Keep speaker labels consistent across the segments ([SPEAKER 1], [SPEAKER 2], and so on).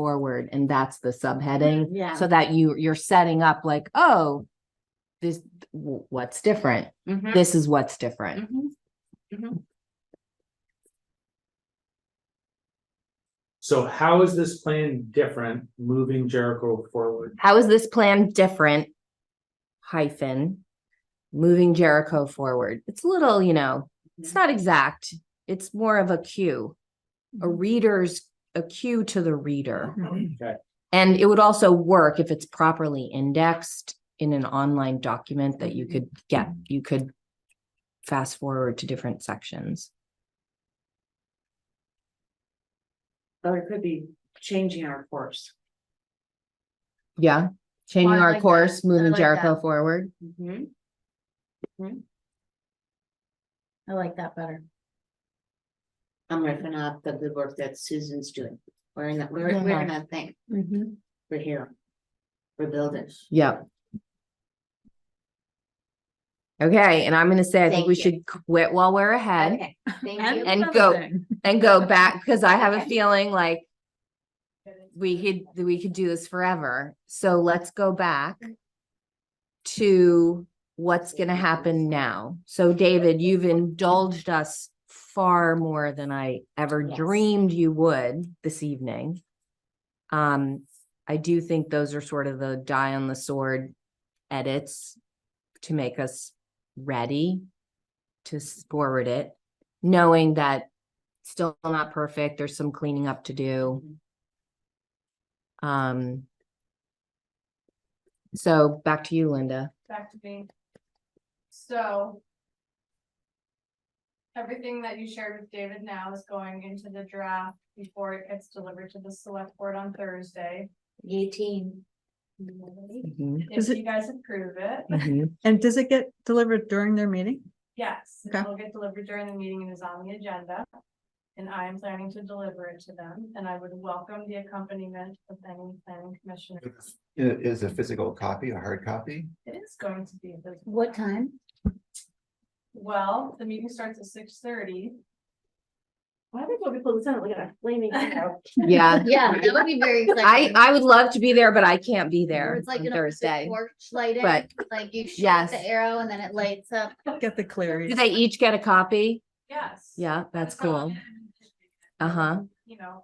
[SPEAKER 1] forward and that's the subheading.
[SPEAKER 2] Yeah.
[SPEAKER 1] So that you, you're setting up like, oh, this, w- what's different?
[SPEAKER 3] Mm-hmm.
[SPEAKER 2] Mhm,
[SPEAKER 1] This is what's different.
[SPEAKER 2] mhm, mhm.
[SPEAKER 4] So how is this plan different moving Jericho forward?
[SPEAKER 1] How is this plan different? Hyphen, moving Jericho forward. It's a little, you know, it's not exact. It's more of a cue, a
[SPEAKER 3] Mm-hmm.
[SPEAKER 2] Mm-hmm.
[SPEAKER 1] reader's, a cue to the reader.
[SPEAKER 2] Mhm.
[SPEAKER 4] Okay,
[SPEAKER 1] And it would also work if it's properly indexed in an online document that you could get, you could fast forward to different sections.
[SPEAKER 2] Or it could be changing our course.
[SPEAKER 1] Yeah, changing
[SPEAKER 2] I
[SPEAKER 1] our
[SPEAKER 2] like that.
[SPEAKER 1] course,
[SPEAKER 2] I
[SPEAKER 1] moving
[SPEAKER 2] like
[SPEAKER 1] Jericho
[SPEAKER 2] that.
[SPEAKER 1] forward.
[SPEAKER 2] Mhm. Mhm. I like that better.
[SPEAKER 3] I'm ripping off the good work that Susan's doing. We're in, the- we're,
[SPEAKER 1] Yeah.
[SPEAKER 3] we're in that thing.
[SPEAKER 2] Mm-hmm.
[SPEAKER 3] We're here. We're building.
[SPEAKER 1] Yep. Okay, and I'm gonna say, I think
[SPEAKER 3] Thank
[SPEAKER 1] we
[SPEAKER 3] you.
[SPEAKER 1] should quit while we're ahead
[SPEAKER 3] Okay, thank you.
[SPEAKER 1] And go. and go back, because I have a
[SPEAKER 3] Okay.
[SPEAKER 1] feeling like we could, we could do this forever. So let's go back to what's gonna happen now. So David, you've indulged us far more than I ever
[SPEAKER 3] Yes.
[SPEAKER 1] dreamed you would this evening. Um, I do think those are sort of the die on the sword edits to make us ready to s- forward it, knowing that still not perfect, there's some cleaning up to do. Um, so back to you, Linda.
[SPEAKER 5] back to me. So. Everything that you shared with David now is going into the draft before it gets delivered to the select board on Thursday.
[SPEAKER 3] Eighteen. Mm-hmm,
[SPEAKER 5] If you guys approve it,
[SPEAKER 1] Mhm.
[SPEAKER 6] And does it get delivered during their meeting?
[SPEAKER 5] yes,
[SPEAKER 6] Okay.
[SPEAKER 5] it'll get delivered during the meeting and is on the agenda. And I am planning to deliver it to them, and I would welcome the accompaniment of any planning commissioner.
[SPEAKER 7] Is, is a physical copy, a hard copy?
[SPEAKER 5] It is going to be the.
[SPEAKER 3] What time?
[SPEAKER 5] Well, the meeting starts at six thirty.
[SPEAKER 2] Why would we put this on like a flaming arrow?
[SPEAKER 1] Yeah,
[SPEAKER 3] Yeah, that would be very.
[SPEAKER 1] I, I would love to be there, but I can't be there
[SPEAKER 3] It's like
[SPEAKER 1] on
[SPEAKER 3] an open
[SPEAKER 1] Thursday.
[SPEAKER 3] Porch lighting,
[SPEAKER 1] but-
[SPEAKER 3] like you shoot
[SPEAKER 1] Yes.
[SPEAKER 3] the arrow and then it lights up.
[SPEAKER 6] Get the
[SPEAKER 1] Do
[SPEAKER 6] clarity.
[SPEAKER 1] they each get a copy?
[SPEAKER 5] Yes.
[SPEAKER 1] Yeah, that's
[SPEAKER 5] how I
[SPEAKER 1] cool.
[SPEAKER 5] am envisioning it.
[SPEAKER 1] Uh-huh.
[SPEAKER 5] You know.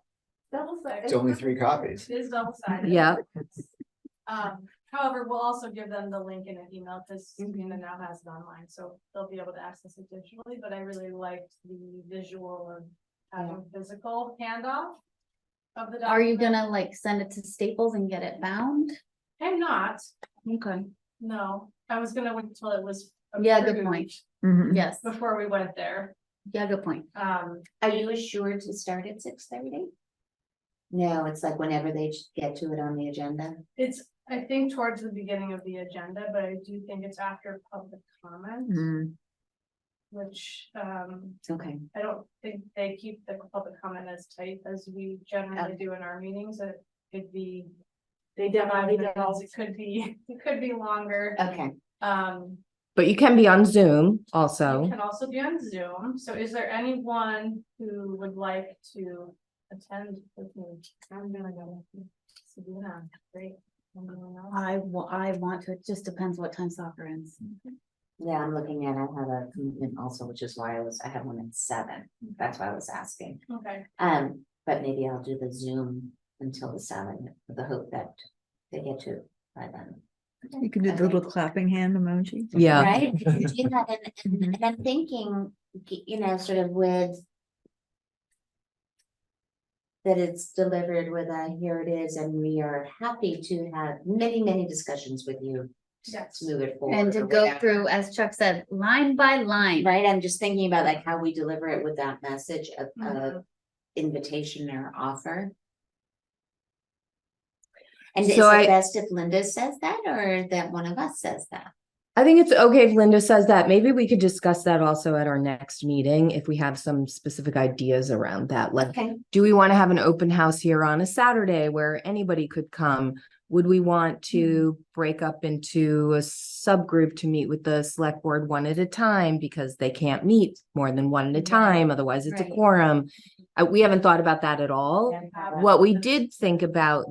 [SPEAKER 5] Double sided.
[SPEAKER 7] It's only three copies.
[SPEAKER 5] It is double sided.
[SPEAKER 1] Yeah.
[SPEAKER 5] Um, however, we'll also give them the link in an email because
[SPEAKER 3] Mm-hmm.
[SPEAKER 5] Sabrina now has it online, so they'll be able to access it digitally, but I really liked the visual of having physical handoff. Of the.
[SPEAKER 3] Are you
[SPEAKER 5] document.
[SPEAKER 3] gonna like send it to Staples and get it bound?
[SPEAKER 5] I'm not,
[SPEAKER 3] Okay.
[SPEAKER 5] no, I was gonna wait until it was.
[SPEAKER 3] Yeah, good
[SPEAKER 5] approved
[SPEAKER 3] point.
[SPEAKER 1] Mm-hmm.
[SPEAKER 6] Mhm.
[SPEAKER 3] Yes,
[SPEAKER 5] Before we went there,
[SPEAKER 3] yeah, good point.
[SPEAKER 5] um,
[SPEAKER 3] Are you assured to start at six thirty? No, it's like whenever they get to it on the agenda.
[SPEAKER 5] it's, I think towards the beginning of the agenda, but I do think it's after public comment.
[SPEAKER 3] Mm-hmm.
[SPEAKER 6] Mhm.
[SPEAKER 5] Which, um,
[SPEAKER 3] Okay.
[SPEAKER 5] I don't think they keep the public comment as tight as we generally do in our meetings, it could be.
[SPEAKER 2] They
[SPEAKER 5] five
[SPEAKER 2] definitely
[SPEAKER 5] minutes, It could be, it could be longer,
[SPEAKER 3] Okay.
[SPEAKER 5] um,
[SPEAKER 1] But you can be on Zoom
[SPEAKER 5] you
[SPEAKER 1] also.
[SPEAKER 5] can also be on Zoom, so is there anyone who would like to attend with me? I'm gonna go. Sabrina, great. Anyone else?
[SPEAKER 2] I wa- I want to, it just depends what time soccer ends.
[SPEAKER 3] Yeah, I'm looking at, I have a commitment also, which is why I was, I had one at seven, that's why I was asking.
[SPEAKER 5] Okay,
[SPEAKER 3] Um, but maybe I'll do the Zoom until the seven, with the hope that they get to it by then.
[SPEAKER 6] You can do the little clapping hand emoji. Mm-hmm.
[SPEAKER 1] Yeah,
[SPEAKER 3] Right, If you do that, and, and- and I'm thinking, you know, sort of with. That it's delivered with a, here it is, and we are happy to have many, many discussions with you
[SPEAKER 5] yes,
[SPEAKER 3] to move it forward.
[SPEAKER 8] And to
[SPEAKER 3] or
[SPEAKER 8] go
[SPEAKER 3] whatever.
[SPEAKER 8] through, as Chuck said, line by line.
[SPEAKER 3] Right, I'm just thinking about like how we deliver it with that message of, of
[SPEAKER 8] Mm-hmm.
[SPEAKER 5] Mhm.
[SPEAKER 3] invitation or offer. And is it
[SPEAKER 1] So I-
[SPEAKER 3] best if Linda says that or that one of us says that?
[SPEAKER 1] I think it's okay if Linda says that. Maybe we could discuss that also at our next meeting if we have some specific ideas around that. Like,
[SPEAKER 3] Okay.
[SPEAKER 1] do we want to have an open house here on a Saturday where anybody could come? Would we want to break up into a subgroup to meet with the select board one at a time because they can't meet more than one at a
[SPEAKER 3] Right.
[SPEAKER 1] time, otherwise it's a
[SPEAKER 3] Right.
[SPEAKER 1] quorum? Uh, we haven't thought about that at all.
[SPEAKER 3] Yeah.
[SPEAKER 5] Have it.
[SPEAKER 1] What we did think about